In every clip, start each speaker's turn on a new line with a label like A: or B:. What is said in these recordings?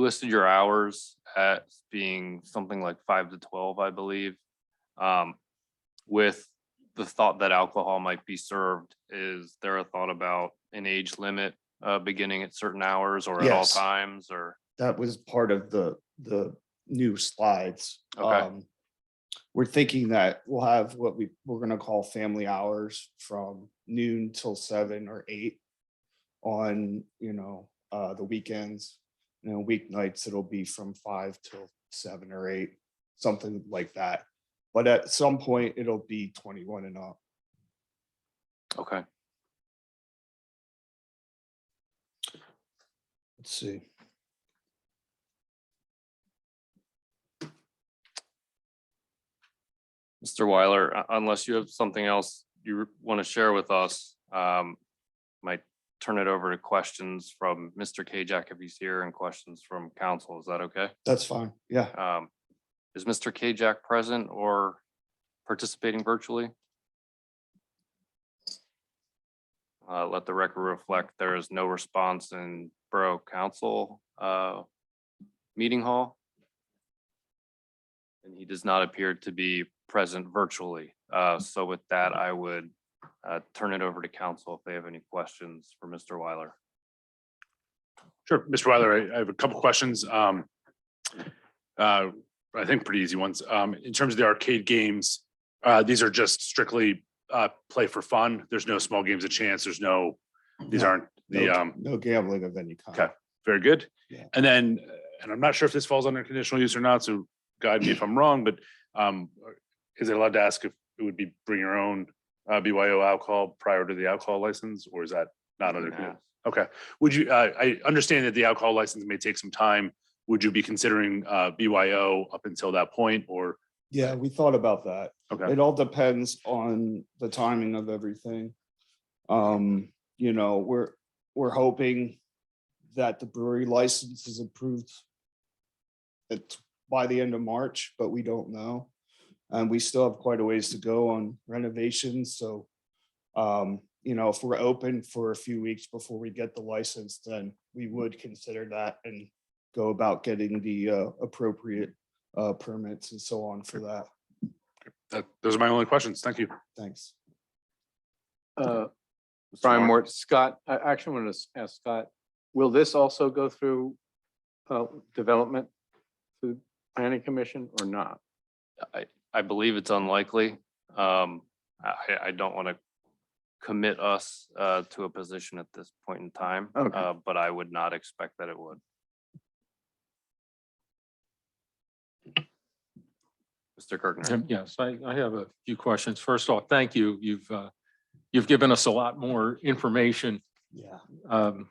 A: You listed your hours at being something like five to twelve, I believe. Um, with the thought that alcohol might be served, is there a thought about an age limit? Uh, beginning at certain hours or at all
B: Yes.
A: times or,
B: that was part of the, the new slides.
A: Okay.
B: Um, We're thinking that we'll have what we, we're gonna call family hours from noon till seven or eight on, you know, uh, the weekends. You know, weeknights, it'll be from five till seven or eight, something like that. But at some point, it'll be twenty-one and up.
A: okay,
B: Let's see.
A: Mr. Weiler, u- unless you have something else you want to share with us, um. Might turn it over to questions from Mr. Kajak if he's here and questions from council. Is that okay?
B: That's fine. Yeah.
A: Um, Is Mr. Kajak present or participating virtually? Uh, Let the record reflect, there is no response in Borough Council uh, Meeting Hall. And he does not appear to be present virtually. Uh, So with that, I would uh, turn it over to council if they have any questions for Mr. Weiler.
C: Sure, Mr. Weiler, I- I have a couple questions. Um, uh, I think pretty easy ones. Um, in terms of the arcade games, uh, these are just strictly uh, play for fun. There's no small games of chance. There's no, these
B: No,
C: aren't the
B: no-
C: um,
B: No gambling of any kind.
C: Okay. very good.
B: Yeah.
C: And then, uh, and I'm not sure if this falls under conditional use or not, so guide me if I'm wrong, but um, is it allowed to ask if it would be bring your own uh, BYO alcohol prior to the alcohol license, or is that not under? condi- Okay, would you, uh, I understand that the alcohol license may take some time. Would you be considering uh, BYO up until that point or?
B: Yeah, we thought about that.
C: Okay,
B: It all depends on the timing of everything. Um, you know, we're, we're hoping that the brewery license is approved at, by the end of March, but we don't know. And we still have quite a ways to go on renovations, so um, you know, if we're open for a few weeks before we get the license, then we would consider that and go about getting the uh, appropriate uh, permits and so on for that.
C: that- those are my only questions. Thank you.
B: Thanks.
D: Uh,
C: Mr.
D: Brian
C: Moore.
D: Moore, Scott, I actually want to ask Scott, will this also go through uh, development to the planning commission or not?
A: I, I believe it's unlikely. Um, I, I- I don't want to commit us, uh, to a position at this point in time.
D: Okay.
A: Uh, but I would not expect that it would. Mr. Kirkner,
E: Um, Yes, I, I have a few questions. First off, thank you. You've, uh, you've given us a lot more information
B: Yeah.
E: um,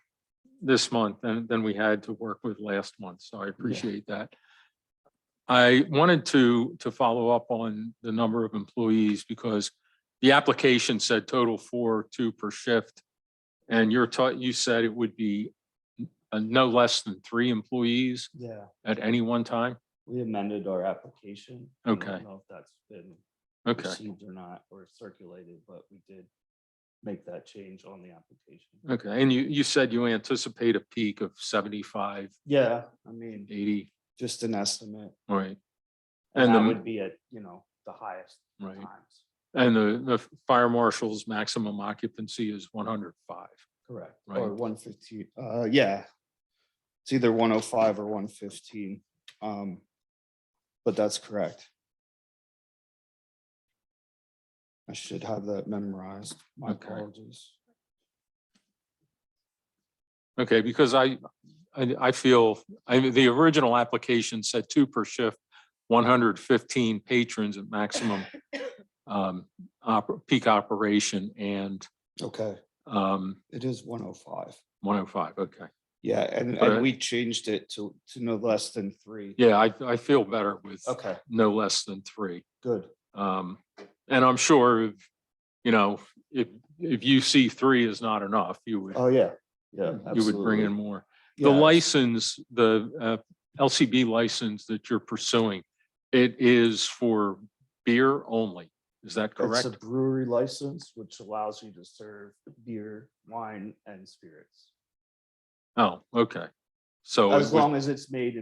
E: this month than, than we had to work with last month, so I appreciate that. I wanted to, to follow up on the number of employees because the application said total four, two per shift. And you're taught, you said it would be uh, no less than three employees
B: Yeah,
E: at any one time?
B: we amended our application. I don't
E: Okay.
B: know if that's been
E: Okay.
B: received or not, or circulated, but we did make that change on the application.
E: Okay, and you, you said you anticipate a peak of 75,
B: Yeah, I mean,
E: 80,
B: just an estimate,
E: right?
B: and
E: And
B: that
E: the,
B: would be at, you know, the highest
E: right,
B: times.
E: and the, the fire marshal's maximum occupancy is 105.
B: Correct. Or
E: Right.
B: one fifteen, uh, yeah. It's either one oh five or one fifteen, um, but that's correct. I should have that memorized, my
E: Okay.
B: apologies.
E: Okay, because I, I, I feel, I, mean, the original application said two per shift, 115 patrons at maximum um, oper- peak operation and
B: Okay,
E: um,
B: it is one oh five.
E: 105, okay.
B: Yeah, and, and
E: But-
B: we changed it to, to no less than three.
E: Yeah, I, I feel better with
B: Okay,
E: no less than three.
B: good.
E: Um, and I'm sure, if you know, if, if you see three is not enough, you would,
B: Oh, yeah, yeah.
E: you would bring
B: absolutely.
E: in more. The
B: Yeah,
E: license, the, uh, LCB license that you're pursuing, it is for beer only. Is that
B: It's
E: correct?
B: a brewery license, which allows you to serve beer, wine, and spirits.
E: Oh, okay. So. it
B: As
E: would-
B: long as it's made